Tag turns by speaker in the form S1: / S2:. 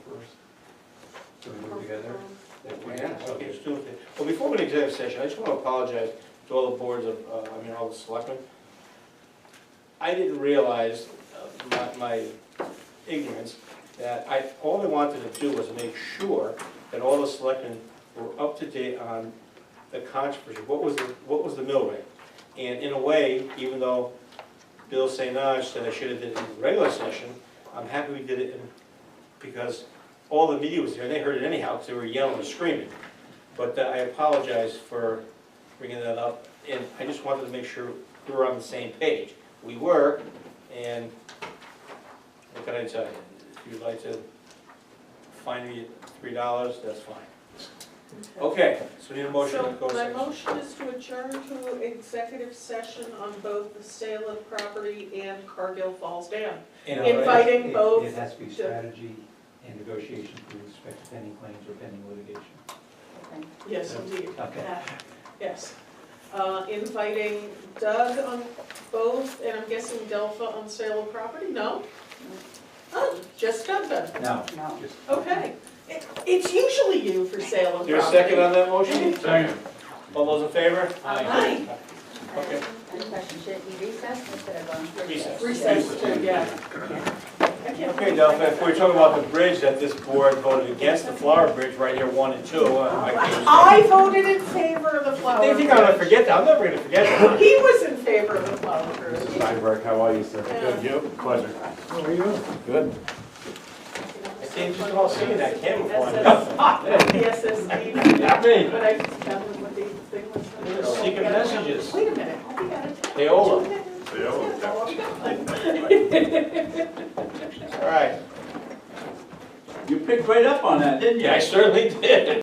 S1: together. if we
S2: Yeah,
S1: can.
S2: okay, let's do it. Well, before we executive session, I just want to apologize to all the boards of, uh, I mean, all the selectmen. I didn't realize uh, my- my ignorance, that I, all I wanted to do was make sure that all the selectmen were up to date on the controversy, what was, the what was the mill rate? And in a way, even though Bill St. Ange said I should have did it in the regular session, I'm happy we did it in, because all the media was there, and they heard it anyhow, because they were yelling and screaming. But uh, I apologize for bringing that up, and I just wanted to make sure we were on the same page. We were, and what can I tell you? If you'd like to find me three dollars, that's fine. Okay, so need a Oh, motion to go.
S3: So my
S2: section.
S3: motion is to adjourn to executive session on both the sale of property and Cargill Falls Dam.
S2: And-
S1: No, it-
S3: Inviting
S1: it-
S3: both
S1: It has to be
S3: to-
S1: strategy and negotiation with respect to pending claims or pending litigation.
S3: Yes, indeed.
S1: Okay.
S3: Uh, Yes. Uh, Inviting Doug on both, and I'm guessing Delpha on sale of property? No? Oh, just Doug then.
S1: No.
S4: No.
S1: just-
S3: Okay. It- It's usually you for sale of property.
S2: Is there a second on that motion?
S5: Second.
S2: All those in favor?
S3: Aye.
S2: Okay.
S4: Any questions? Should it be recessed instead of on?
S2: Recess.
S3: Recess, yeah. I can't-
S2: Okay, Delphi, if we're talking about the bridge that this board voted against, the Flower Bridge right here, one and two, uh, I can't.
S3: I voted in favor of the flower.
S2: They think I'm gonna
S3: bridge.
S2: forget that, I'm never gonna forget that.
S3: He was in favor of the flower
S5: Mr.
S3: bridge.
S5: Steinberg, how are you, sir?
S3: Good,
S5: you? Pleasure.
S1: How are you?
S5: Good.
S2: I think just all seeing that camera flying.
S3: SSD,
S2: Not me.
S3: but I just found what the thing was.
S2: Secret messages.
S3: Wait a minute, I'll be out of town.
S2: Payola. All right.
S6: You picked right up on that, didn't you?
S2: Yeah, I certainly did.